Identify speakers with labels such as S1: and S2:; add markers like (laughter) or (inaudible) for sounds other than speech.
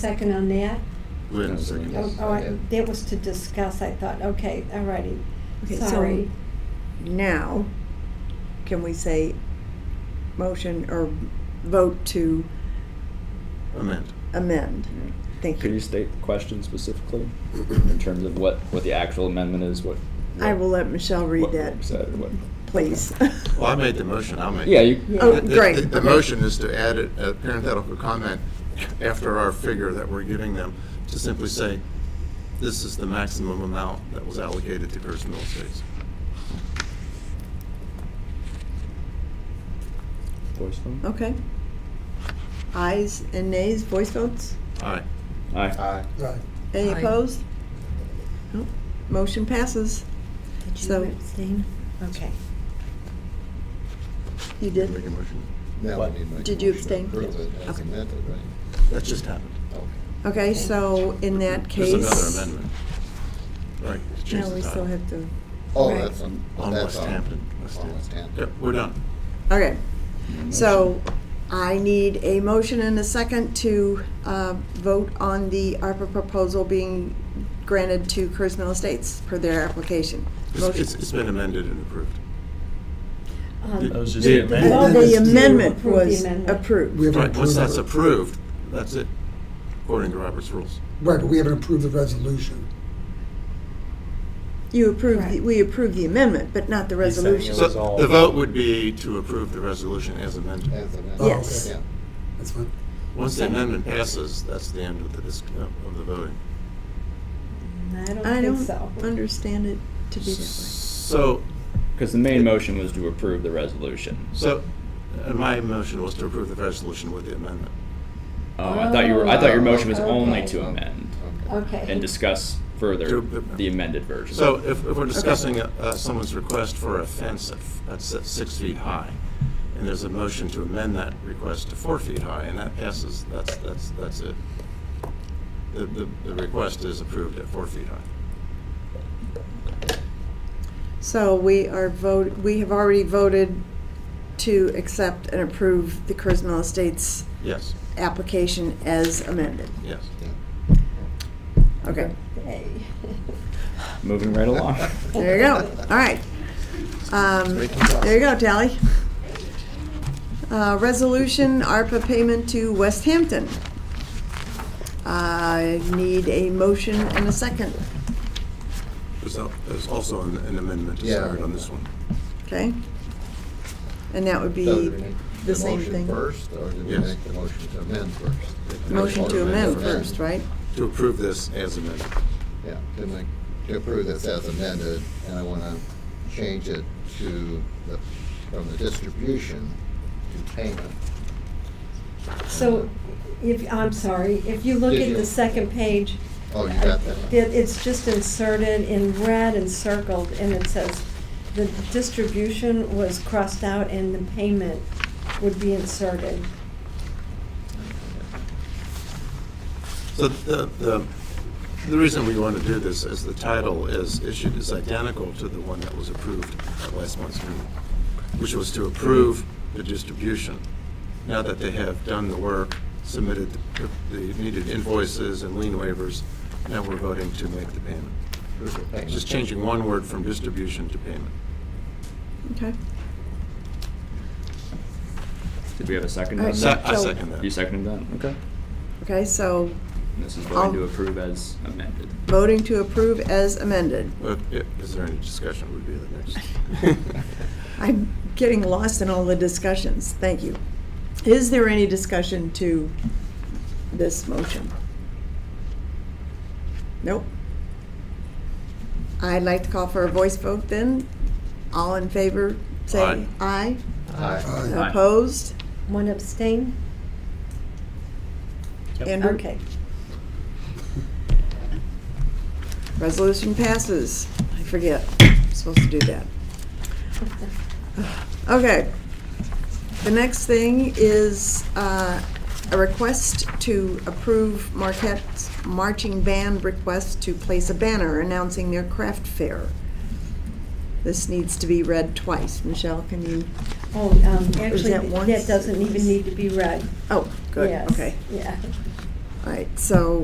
S1: Second on that?
S2: Wait a second.
S1: Oh, oh, I- that was to discuss, I thought, okay, all righty,
S3: Okay, so-
S1: sorry.
S3: Now, can we say motion or vote to
S2: Amend.
S3: amend? Thank
S4: Could you
S3: you.
S4: state the question specifically in terms of what, what the actual amendment is? What
S3: I will let Michelle read
S4: what Rob
S3: that,
S4: said, or what-
S3: please. (laughs)
S2: Well, I made the motion, I'll make. it.
S4: Yeah, you,
S1: Yeah.
S3: Oh,
S2: The- the-
S3: great.
S2: The the
S3: Okay.
S2: motion is to add a a parenthetical comment after our figure that we're giving them, to simply say, this is the maximum amount that was allocated to Pierce Middle Estates.
S4: voice vote?
S3: Okay. Ayes and nays, voice votes?
S2: Aye. Uh,
S4: Aye.
S3: Any
S5: Aye.
S3: opposed? Nope. Motion passes.
S1: Did you
S3: So-
S1: abstain? Okay.
S3: You
S2: Make a
S3: did?
S2: motion.
S6: Now we need to make a
S3: Did you
S6: motion to
S3: abstain?
S6: approve it as
S3: Okay.
S6: amended, right?
S2: That just happened.
S6: Okay.
S3: Okay, so in that case.
S2: There's another amendment. Right, to change
S3: Now
S2: the
S3: we still
S2: title.
S3: have to,
S6: Oh,
S1: Right.
S6: that's on,
S2: On
S6: that's
S2: West
S6: on.
S2: Hampton.
S6: On West
S2: Yep,
S6: Hampton.
S2: we're done.
S3: okay. So I need a motion and a second to uh, vote on the ARPA proposal being granted to Curtis Mill Estates per their application.
S2: It's-
S3: Motion.
S2: It's, it's been amended and approved.
S1: Um,
S2: That was
S7: just the amendment.
S3: Well,
S6: Well,
S3: the
S6: the
S3: amendment
S1: approve the
S3: was
S1: amendment.
S6: We
S3: approved.
S6: have-
S2: Right, once
S7: approved.
S2: that's approved, that's it, according to Robert's rules.
S7: Right, but we haven't approved the resolution.
S3: You approved, the-
S1: Right.
S3: we approved the amendment, but not the
S7: He's saying it
S3: resolution.
S2: So
S7: was all-
S2: the vote would be to approve the resolution as amended.
S6: As amended.
S3: Oh, Yes.
S6: Yeah.
S7: okay. That's fine.
S2: Once the amendment passes, that's the end of the, dis- uh, of the voting.
S1: I don't
S3: I
S1: think
S3: don't
S1: so.
S3: understand it to be that
S2: So,
S4: Because the main motion was to approve the resolution.
S2: so, uh, my motion was to approve the resolution with the amendment.
S4: Oh, I thought you were, I thought your motion was
S1: Oh,
S4: only
S1: okay.
S4: to amend
S6: Okay.
S1: Okay.
S4: and discuss further
S2: Oh, To-
S4: the amended version.
S2: So if, if we're discussing uh, someone's request for a fence at f- that's at six feet high, and there's a motion to amend that request to four feet high, and that passes, that's, that's, that's it. The, the, the request is approved at four feet high.
S3: way. So we are vote, we have already voted to accept and approve the Curtis Mill Estates
S2: Yes,
S3: application as amended.
S2: yes.
S3: Okay,
S1: Hey. (laughs)
S4: Moving right along.
S6: (laughs)
S3: there you go. All right. Um, There you go, Tally. Uh, Resolution, ARPA payment to West Hampton. I need a motion and a second,
S2: There's, al- there's also an an amendment desired on this one.
S3: okay? And that would
S6: So do we
S3: be,
S6: make
S3: the same
S6: motion
S3: thing.
S6: first, or do we
S2: Yes.
S6: make the motion to amend first?
S3: motion to amend first, right?
S2: To approve this as amended.
S6: Yeah, to make, to approve this as amended, and I want to change it to the, from the distribution to payment.
S1: So, if, I'm sorry, if you look
S6: Did
S1: at
S6: you-
S1: the second page, uh,
S6: Oh, you got that?
S1: it, it's just inserted in red and circled, and it says, the distribution was crossed out and the payment would be inserted.
S2: So the, the, the reason we want to do this is the title is issued is identical to the one that was approved at last month's meeting, which was to approve the distribution. Now that they have done the work, submitted the the needed invoices and lien waivers, now we're voting to make the payment.
S6: Approve the payment.
S2: Just changing one word from distribution to payment.
S3: Okay.
S4: Did we have a second?
S3: All right.
S4: on
S2: Se-
S4: that?
S2: I second
S4: You
S2: that.
S4: seconded that? Okay.
S3: Okay, so
S4: And This is
S3: I'll-
S4: voting to approve as amended.
S3: voting to approve as amended.
S2: But i- Is there any discussion would be the next?
S3: I'm getting lost in all the discussions, thank you. Is there any discussion to this motion? Nope. I'd like to call for a voice vote then. All in favor, say aye.
S6: Aye.
S7: Aye.
S3: Opposed?
S1: One abstain?
S3: Andrew?
S1: Okay.
S3: Resolution passes. I forget, I'm supposed to do that. Okay. The next thing is uh, a request to approve Marquette's marching band request to place a banner announcing their craft fair. This needs to be read twice. Michelle, can you?
S1: Oh, um, actually,
S3: that once?
S1: that doesn't even need to be read.
S3: Oh, good,
S1: Yes,
S3: okay.
S1: Yeah.
S3: All right, so